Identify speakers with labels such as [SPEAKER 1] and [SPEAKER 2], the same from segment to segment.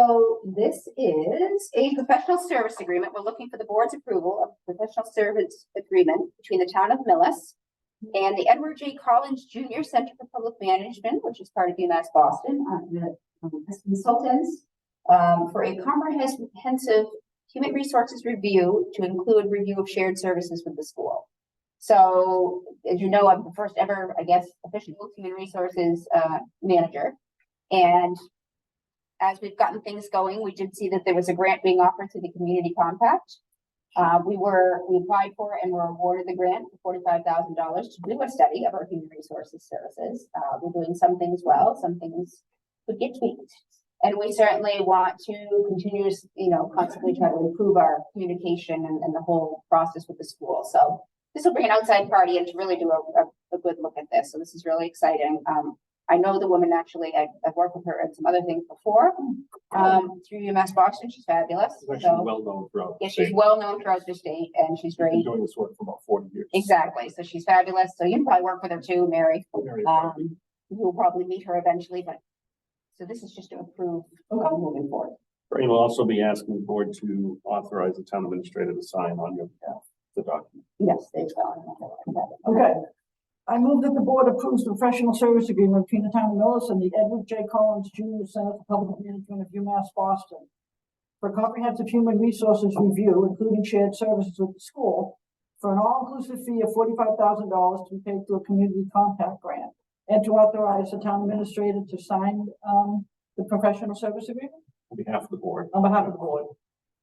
[SPEAKER 1] So this is a professional service agreement. We're looking for the board's approval of professional service agreement between the town of Millis and the Edward J. Collins Junior Center for Public Management, which is part of UMass Boston, uh, the um, as consultants um, for a comprehensive human resources review to include review of shared services with the school. So as you know, I'm the first ever, I guess, official human resources uh, manager. And as we've gotten things going, we did see that there was a grant being offered to the community compact. Uh, we were, we applied for and were awarded the grant for forty-five thousand dollars to do a study of our human resources services. Uh, we're doing some things well, some things could get tweaked. And we certainly want to continue, you know, constantly try to improve our communication and, and the whole process with the school. So this will bring an outside party and to really do a, a, a good look at this. So this is really exciting. Um, I know the woman actually, I, I've worked with her and some other things before, um, through UMass Boston, she's fabulous,
[SPEAKER 2] She's actually
[SPEAKER 1] so.
[SPEAKER 2] well known throughout. the
[SPEAKER 1] Yeah, she's
[SPEAKER 2] state.
[SPEAKER 1] well known throughout the state and she's
[SPEAKER 2] Been
[SPEAKER 1] great,
[SPEAKER 2] Doing this work for about forty years.
[SPEAKER 1] exactly, so she's fabulous, so you can probably work with her too, Mary,
[SPEAKER 2] Very proud.
[SPEAKER 1] um, you'll probably meet her eventually, but. So this is just to approve, uh, moving forward,
[SPEAKER 2] And we'll also be asking the board to authorize the town administrator to sign on your behalf, the document.
[SPEAKER 1] yes, there's. Okay,
[SPEAKER 3] Okay. I move that the board approves the professional service agreement between the town of Millis and the Edward J. Collins Junior Center for Public Management of UMass Boston for comprehensive human resources review, including shared services with the school, for an all-inclusive fee of forty-five thousand dollars to be paid through a community compact grant, and to authorize the town administrator to sign, um, the professional service agreement
[SPEAKER 2] On behalf of the board.
[SPEAKER 3] on behalf of the board.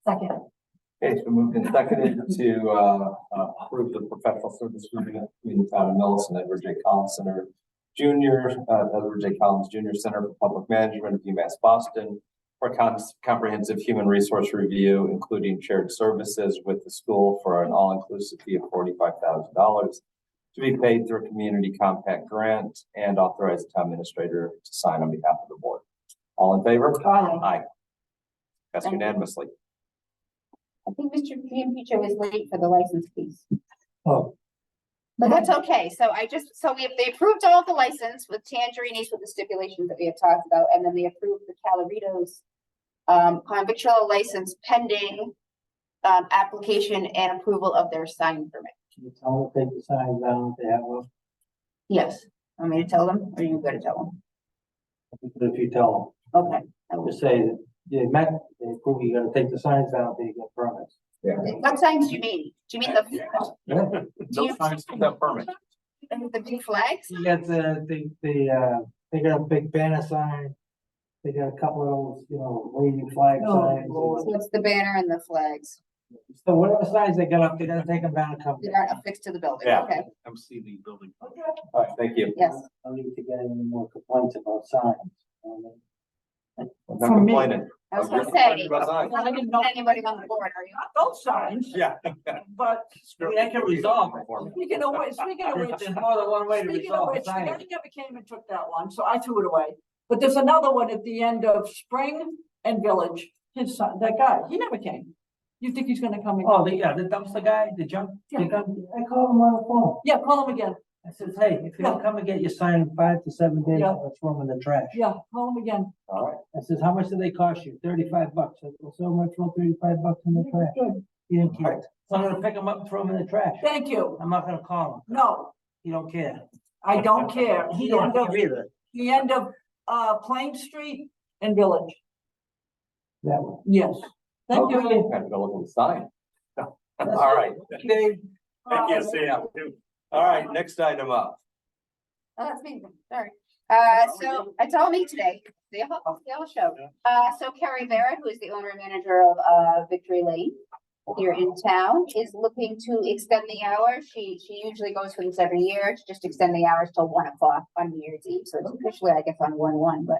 [SPEAKER 3] Second.
[SPEAKER 4] Okay, it's been moved and seconded to uh, uh, approve the professional service agreement between the town of Millis and Edward J. Collins Center Junior, uh, Edward J. Collins Junior Center for Public Management of UMass Boston for cons- comprehensive human resource review, including shared services with the school for an all-inclusive fee of forty-five thousand dollars to be paid through a community compact grant and authorize the town administrator to sign on behalf of the board. All in favor?
[SPEAKER 3] Aye.
[SPEAKER 4] Aye. That's unanimously.
[SPEAKER 1] I think Mr. Giampico was late for the license piece.
[SPEAKER 4] Oh.
[SPEAKER 1] But that's okay, so I just, so we, they approved all the license with Tangerini's with the stipulations that we had talked about, and then they approved the Caloritos. Um, convictual license pending, um, application and approval of their sign permit.
[SPEAKER 5] Can you tell them to take the signs down if they have one?
[SPEAKER 1] Yes, want me to tell them, or you gotta tell
[SPEAKER 5] If you tell
[SPEAKER 1] them? Okay. I
[SPEAKER 5] them,
[SPEAKER 1] will.
[SPEAKER 5] just say that they met, they approve, you gotta take the signs down if you get permits.
[SPEAKER 4] Yeah.
[SPEAKER 1] What signs do you mean? Do you mean the, Do you-
[SPEAKER 4] No signs without permit.
[SPEAKER 1] the big flags?
[SPEAKER 5] You got the, the, the, uh, they got a big banner sign, they got a couple of those, you know, waving flag
[SPEAKER 3] Oh,
[SPEAKER 5] signs.
[SPEAKER 3] Lord.
[SPEAKER 1] What's the banner and the flags
[SPEAKER 5] So whatever signs they got up, they gotta take them down and come.
[SPEAKER 1] that aren't affixed to the building?
[SPEAKER 4] Yeah.
[SPEAKER 1] Okay,
[SPEAKER 2] MCD building.
[SPEAKER 4] All right, thank you.
[SPEAKER 1] yes.
[SPEAKER 5] I don't need to get any more complaints about signs. um,
[SPEAKER 4] I'm
[SPEAKER 3] For
[SPEAKER 4] not
[SPEAKER 3] me.
[SPEAKER 4] complaining.
[SPEAKER 1] I was gonna
[SPEAKER 4] I'm
[SPEAKER 1] say,
[SPEAKER 4] complaining about signs.
[SPEAKER 3] I didn't know-
[SPEAKER 1] anybody on the board, are you?
[SPEAKER 3] Not those signs.
[SPEAKER 4] Yeah.
[SPEAKER 3] But
[SPEAKER 4] Sure.
[SPEAKER 5] I can resolve it.
[SPEAKER 4] For me.
[SPEAKER 3] Speaking of which, speaking of which,
[SPEAKER 5] There's more than one way to
[SPEAKER 3] speaking of
[SPEAKER 5] resolve a
[SPEAKER 3] which,
[SPEAKER 5] sign.
[SPEAKER 3] Mary never came and took that one, so I threw it away. But there's another one at the end of Spring and Village, his son, that guy, he never came. You think he's gonna come again?
[SPEAKER 5] Oh, the, yeah, the dumpster guy, the junk,
[SPEAKER 3] Yeah.
[SPEAKER 5] the dump- I called him on the phone.
[SPEAKER 3] Yeah, call him again,
[SPEAKER 5] I says, hey, if you don't come and get your sign in five to seven days,
[SPEAKER 3] Yeah.
[SPEAKER 5] let's throw them in the trash.
[SPEAKER 3] yeah, call him again.
[SPEAKER 4] All right,
[SPEAKER 5] I says, how much do they cost you? Thirty-five bucks. I said, so much for thirty-five bucks in the trash.
[SPEAKER 3] Good.
[SPEAKER 5] He didn't care.
[SPEAKER 4] Right.
[SPEAKER 5] So I'm gonna pick them up and throw them in the trash.
[SPEAKER 3] Thank you.
[SPEAKER 5] I'm not gonna call him.
[SPEAKER 3] No,
[SPEAKER 5] He don't care.
[SPEAKER 3] I don't care.
[SPEAKER 5] He
[SPEAKER 3] The
[SPEAKER 5] don't
[SPEAKER 3] end of,
[SPEAKER 5] care either.
[SPEAKER 3] the end of, uh, Plain Street and Village,
[SPEAKER 5] That one.
[SPEAKER 3] yes. Thank
[SPEAKER 4] Okay,
[SPEAKER 3] you.
[SPEAKER 4] gotta go look at the sign. All right,
[SPEAKER 5] They-
[SPEAKER 2] I can't say that.
[SPEAKER 4] all right, next item up.
[SPEAKER 1] Oh, that's me, sorry. Uh, so it's all me today. They all, they all showed. Uh, so Carrie Barrett, who is the owner and manager of, uh, Victory Lane here in town, is looking to extend the hours. She, she usually goes for this every year, to just extend the hours till one o'clock on New Year's Eve. So it's officially, I guess, on one, one, but.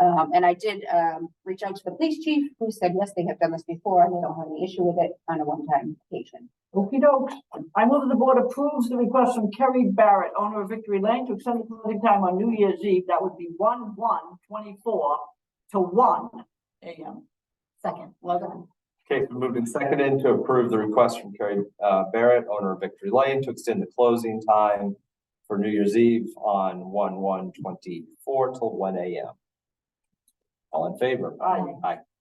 [SPEAKER 1] Um, and I did, um, reach out to the police chief, who said, yes, they have done this before, and they don't have any issue with it on a one-time occasion.
[SPEAKER 3] Okey doke. I move that the board approves the request from Kerry Barrett, owner of Victory Lane, to extend the closing time on New Year's Eve. That would be one, one, twenty-four to one AM.
[SPEAKER 1] Second, well done.
[SPEAKER 4] Okay, it's been moved and seconded to approve the request from Carrie uh, Barrett, owner of Victory Lane, to extend the closing time for New Year's Eve on one, one, twenty-four till one AM. All in favor?
[SPEAKER 3] Aye.
[SPEAKER 4] Aye.